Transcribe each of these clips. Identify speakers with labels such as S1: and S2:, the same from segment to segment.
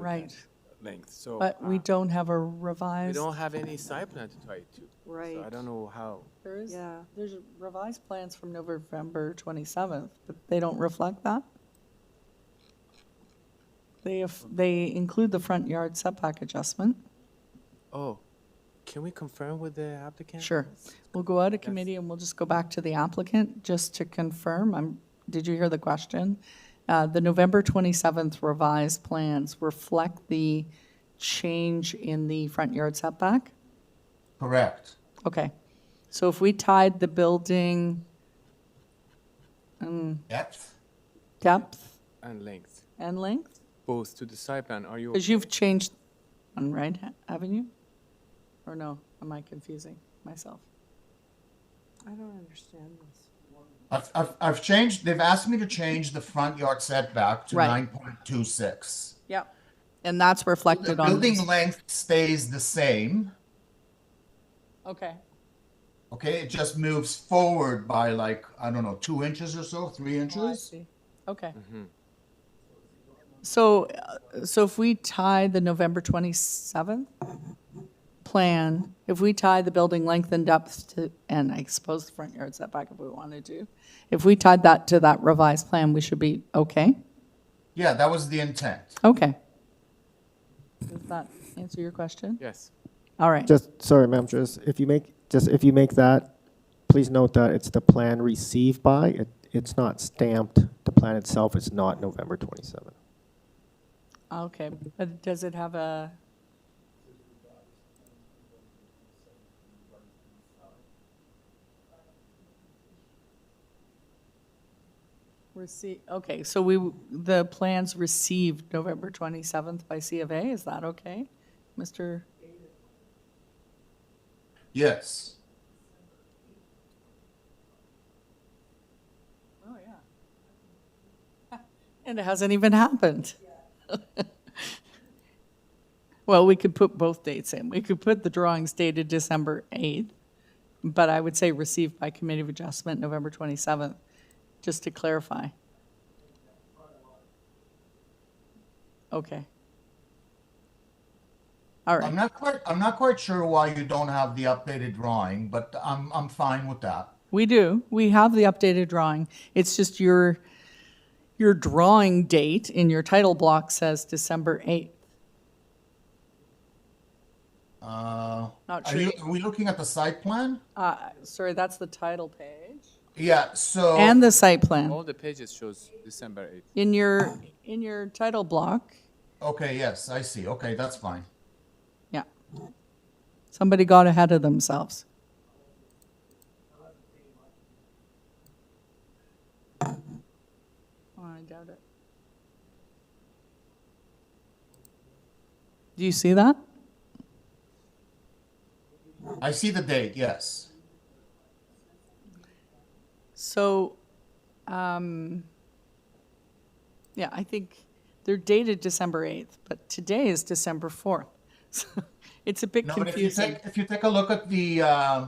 S1: Right,
S2: length, so.
S1: but we
S2: uh,
S1: don't have a
S2: We
S1: revised,
S2: don't have any site plan to tie it to. So I
S3: Right.
S2: don't know how.
S1: there is,
S3: Yeah.
S1: there's revised plans from November 27th, but they don't reflect that? They, have- they include the front yard setback adjustment.
S2: Oh, can we confirm with the applicant?
S1: Sure. We'll go out of committee and we'll just go back to the applicant just to confirm. I'm, did you hear the question? Uh, the November 27th revised plans reflect the change in the front yard setback?
S4: Correct.
S1: Okay, so if we tied the building
S4: Depth?
S1: depth
S2: And length,
S1: and length,
S2: both to the site plan, are you,
S1: because you've changed one, right, haven't you? Or no, am I confusing myself?
S3: I don't understand this.
S4: I've, I've, I've changed, they've asked me to change the front yard setback to
S1: Right.
S4: nine point two six.
S1: Yep. And that's
S4: The
S1: reflected on
S4: building
S1: this.
S4: length stays the same,
S1: Okay,
S4: okay? It just moves forward by like, I don't know, two inches or so, three
S1: Oh, I
S4: inches?
S1: see. okay. So, uh, so if we tie the November 27th plan, if we tie the building length and depth to, and I suppose the front yard setback if we wanted to, if we tied that to that revised plan, we should be okay?
S4: Yeah, that was the intent.
S1: Okay. Does that answer your question?
S2: yes,
S1: All right.
S5: Just, sorry, ma'am, just, if you make, just if you make that, please note that it's the plan received by, it, it's not stamped, the plan itself is not November twenty-seven.
S1: Okay. But does it have a? Receive, okay, so we, w- the plans received November 27th by C of A, is that okay? Mr.,
S4: Yes.
S1: oh, yeah. And it hasn't even happened. Well, we could put both dates in. We could put the drawings dated December 8th, but I would say received by Committee of Adjustment November 27th, just to clarify. Okay. All
S4: I'm
S1: right,
S4: not quite, I'm not quite sure why you don't have the updated drawing, but I'm, I'm fine with that.
S1: we do. We have the updated drawing. It's just your, your drawing date in your title block says December 8th.
S4: Uh,
S1: Not
S4: are
S1: sure.
S4: you, are we looking at the site plan?
S1: Uh, sorry, that's the title page.
S4: Yeah, so.
S1: And the site plan.
S2: all the pages shows December eighth.
S1: In your, in your title block,
S4: Okay, yes, I see. Okay, that's fine.
S1: yeah. Somebody got ahead of themselves. Oh, I doubt it. Do you see that?
S4: I see the date, yes.
S1: So, um, yeah, I think they're dated December 8th, but today is December 4th. So It's a bit
S4: No, but if you
S1: confusing.
S4: take, if you take a look at the, uh,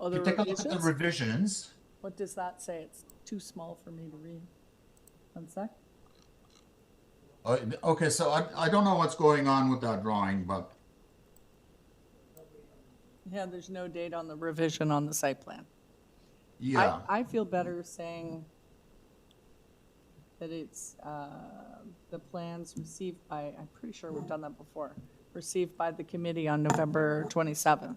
S1: Oh,
S4: if you
S1: the
S4: take a look at the
S1: revisions?
S4: revisions,
S1: What does that say? It's too small for me to read. One sec.
S4: uh, okay, so I, I don't know what's going on with that drawing, but,
S1: Yeah, there's no date on the revision on the site plan.
S4: yeah.
S1: I, I feel better saying that it's, uh, the plans received by, I'm pretty sure we've done that before, received by the committee on November 27th.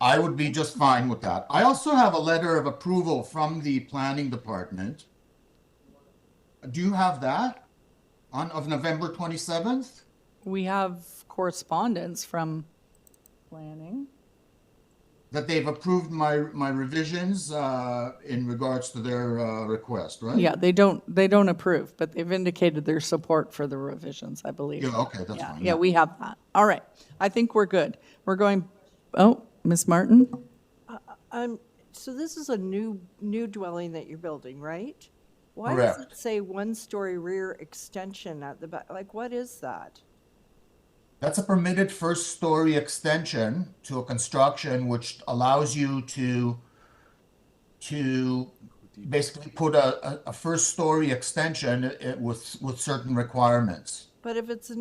S4: I would be just fine with that. I also have a letter of approval from the planning department. Do you have that? On, of November twenty-seventh?
S1: We have correspondence from planning.
S4: That they've approved my, my revisions, uh, in regards to their, uh, request, right?
S1: Yeah, they don't, they don't approve, but they've indicated their support for the revisions, I believe.
S4: Yeah, okay, that's
S1: Yeah,
S4: fine.
S1: yeah, we have that. All right. I think we're good. We're going, oh, Ms. Martin?
S3: Um, so this is a new, new dwelling that you're building, right? Why does
S4: Correct.
S3: it say one-story rear extension at the back? Like, what is that?
S4: That's a permitted first story extension to a construction which allows you to to uh, basically put a, a, a first story extension i- with with certain requirements.
S3: But if it's a